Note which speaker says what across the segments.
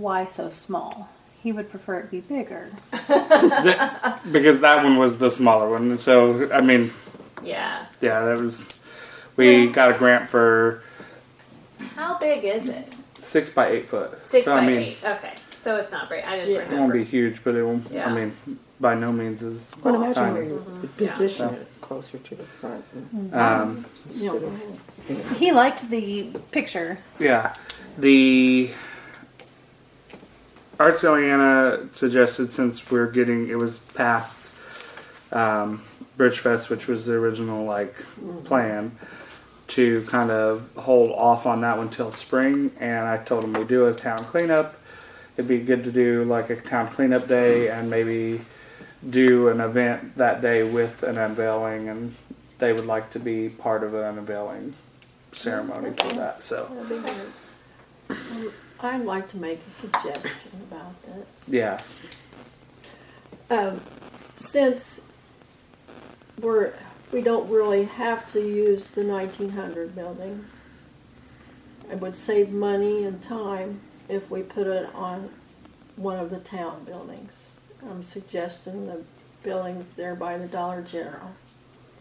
Speaker 1: why so small? He would prefer it be bigger.
Speaker 2: That- because that one was the smaller one. So I mean,
Speaker 3: Yeah.
Speaker 2: yeah, that was. We got a grant for
Speaker 3: How big is it?
Speaker 2: six by eight foot.
Speaker 3: Six
Speaker 2: so,
Speaker 3: by
Speaker 2: I mean,
Speaker 3: eight. Okay. So it's not very. I didn't
Speaker 4: Yeah.
Speaker 2: It
Speaker 3: remember.
Speaker 2: won't be huge, but it won't.
Speaker 3: Yeah.
Speaker 2: I mean, by no means is.
Speaker 4: Well, imagine where
Speaker 2: tiny.
Speaker 4: you
Speaker 3: Yeah.
Speaker 4: position it closer to the front.
Speaker 5: Mm-hmm.
Speaker 4: and
Speaker 2: Um,
Speaker 4: instead of-
Speaker 1: He liked the picture.
Speaker 2: yeah, the Arts Atlanta suggested since we're getting it was past um, Bridge Fest, which was the original like plan, to kind of hold off on that one till spring. And I told him we do a town cleanup. It'd be good to do like a town cleanup day and maybe do an event that day with an unveiling, and they would like to be part of an unveiling ceremony for that. So
Speaker 4: That'd be good. Um, I'd like to make a suggestion about this.
Speaker 2: yeah,
Speaker 4: Um, since we're, we don't really have to use the nineteen hundred building, it would save money and time if we put it on one of the town buildings. I'm suggesting the building there by the Dollar General,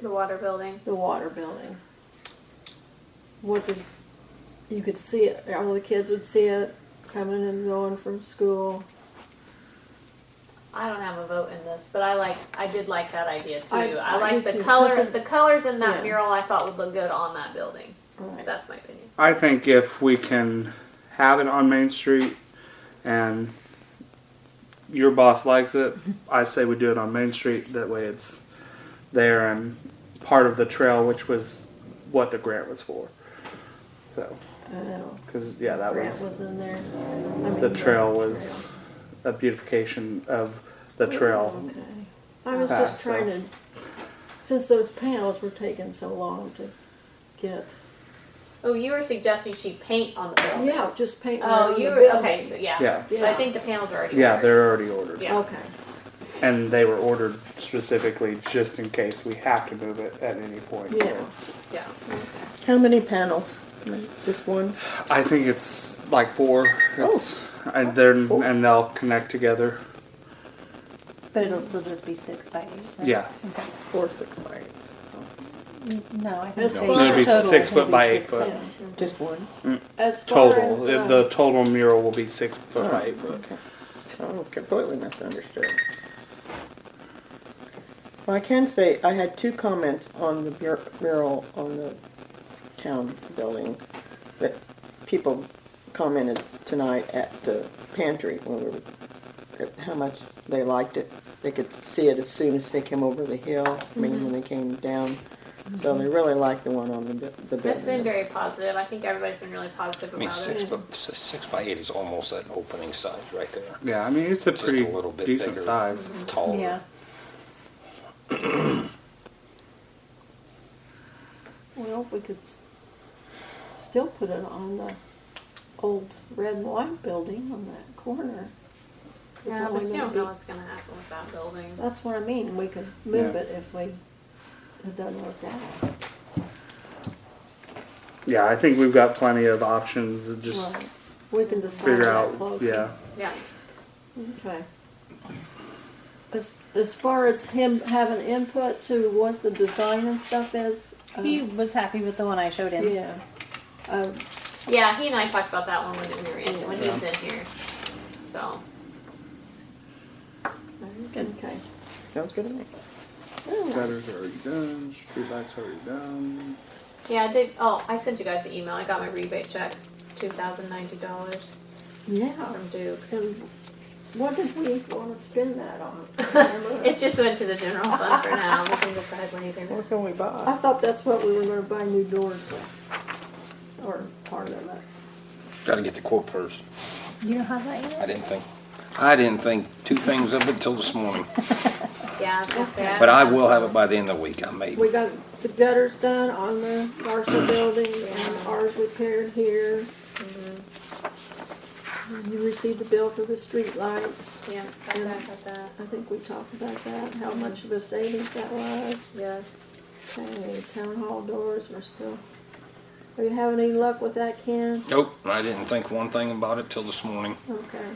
Speaker 3: The water building.
Speaker 4: the water building. What is, you could see it, all the kids would see it coming and going from school.
Speaker 3: I don't have a vote in this, but I like. I did like that idea too. I,
Speaker 4: I- I
Speaker 3: like
Speaker 4: do
Speaker 3: the
Speaker 4: too, 'cause
Speaker 3: color.
Speaker 4: it-
Speaker 3: The colors in that
Speaker 4: Yeah.
Speaker 3: mural I thought would look good on that building.
Speaker 4: Right.
Speaker 3: That's my opinion.
Speaker 2: I think if we can have it on Main Street and your boss likes it, I say we do it on Main Street. That way, it's there and part of the trail, which was what the grant was for. So,
Speaker 4: I know.
Speaker 2: because yeah, that
Speaker 4: Grant
Speaker 2: was
Speaker 4: was in there. I mean,
Speaker 2: the trail was a beautification of the trail.
Speaker 4: Okay. I was
Speaker 2: Ah,
Speaker 4: just
Speaker 2: so-
Speaker 4: trying to, since those panels were taking so long to get.
Speaker 3: Oh, you were suggesting she paint on the building.
Speaker 4: Yeah, just paint.
Speaker 3: Oh,
Speaker 4: around
Speaker 3: you
Speaker 4: the
Speaker 3: were okay.
Speaker 4: building.
Speaker 3: So yeah.
Speaker 2: Yeah.
Speaker 3: But I think the panels are already.
Speaker 2: Yeah,
Speaker 3: ordered.
Speaker 2: they're already ordered.
Speaker 3: Yeah.
Speaker 4: Okay,
Speaker 2: And they were ordered specifically just in case we have to move it at any point.
Speaker 4: yeah.
Speaker 3: Yeah.
Speaker 5: How many panels? Just one?
Speaker 2: I think it's like four. It's, and they're and they'll connect together.
Speaker 1: But it'll still just be six by eight. right?
Speaker 2: Yeah.
Speaker 1: Okay.
Speaker 5: Four, six, by eight, so.
Speaker 1: No, I think
Speaker 4: That's
Speaker 1: they
Speaker 4: fine. It'll
Speaker 2: be
Speaker 1: total
Speaker 2: six
Speaker 1: will
Speaker 2: foot
Speaker 1: be
Speaker 2: by eight
Speaker 1: six by-
Speaker 2: foot.
Speaker 4: yeah.
Speaker 5: Just one?
Speaker 4: As far
Speaker 2: Total.
Speaker 4: as,
Speaker 2: It-
Speaker 4: uh,
Speaker 2: the total mural will be six foot by eight foot.
Speaker 5: Okay. Oh, completely misunderstood. Well, I can say, I had two comments on the bur- mural on the town building that people commented tonight at the pantry when we were, at how much they liked it. They could see it as soon as they came over the hill, I mean,
Speaker 3: Mm-hmm.
Speaker 5: when they came down. So they really liked the one on the, bu- the building.
Speaker 3: That's been very positive. I think everybody's been really positive about
Speaker 6: I mean,
Speaker 3: it.
Speaker 6: six foot, s- six by eight is almost that opening size right there.
Speaker 2: Yeah, I mean it's a
Speaker 6: Just a
Speaker 2: pretty
Speaker 6: little bit
Speaker 2: decent
Speaker 6: bigger.
Speaker 2: size.
Speaker 6: Taller.
Speaker 1: Yeah.
Speaker 4: Well, if we could s- still put it on the old red and white building on that corner. It's
Speaker 3: Yeah,
Speaker 4: only
Speaker 3: but you
Speaker 4: gonna
Speaker 3: don't
Speaker 4: be-
Speaker 3: know what's gonna happen with that building.
Speaker 4: That's what I mean, we could move
Speaker 2: Yeah.
Speaker 4: it if we, it doesn't work out.
Speaker 2: Yeah, I think we've got plenty of options. to Just
Speaker 4: Right. We can decide
Speaker 2: figure
Speaker 4: that
Speaker 2: out.
Speaker 4: closer.
Speaker 2: Yeah,
Speaker 3: Yeah.
Speaker 4: Okay. As, as far as him having input to what the design and stuff is, uh,
Speaker 1: He was happy with the one I showed him.
Speaker 4: yeah. Uh,
Speaker 3: Yeah, he and I talked about that one when we were in when he was in here. So
Speaker 4: okay.
Speaker 5: Sounds good to me.
Speaker 2: gutters already done. Streetlights already done.
Speaker 3: yeah, I did oh, I sent you guys the email. I got my rebate check. Two thousand ninety dollars
Speaker 4: Yeah.
Speaker 3: from Duke.
Speaker 4: And Um, what did we want to spend that on?
Speaker 3: It just went to the general fund for now. We can decide later.
Speaker 5: What can we
Speaker 4: I
Speaker 5: buy?
Speaker 4: thought that's what we were going to buy new doors with, or part of it.
Speaker 6: Got to get the quote first.
Speaker 1: You don't have that
Speaker 6: I
Speaker 1: yet?
Speaker 6: didn't think. I didn't think two things of it till this morning,
Speaker 3: Yeah, I was gonna say
Speaker 6: but I will have it by the end of the week. I may.
Speaker 4: We got the gutters done on the Marshall building and ours repaired here. And You received the bill for the streetlights.
Speaker 3: Yeah, got that, got that.
Speaker 4: I think we talked about that, how much of a savings that was.
Speaker 3: Yes.
Speaker 4: Okay, town hall doors were still, are you having any luck with that, Ken?
Speaker 6: Nope. I didn't think one thing about it till this morning.
Speaker 4: Okay.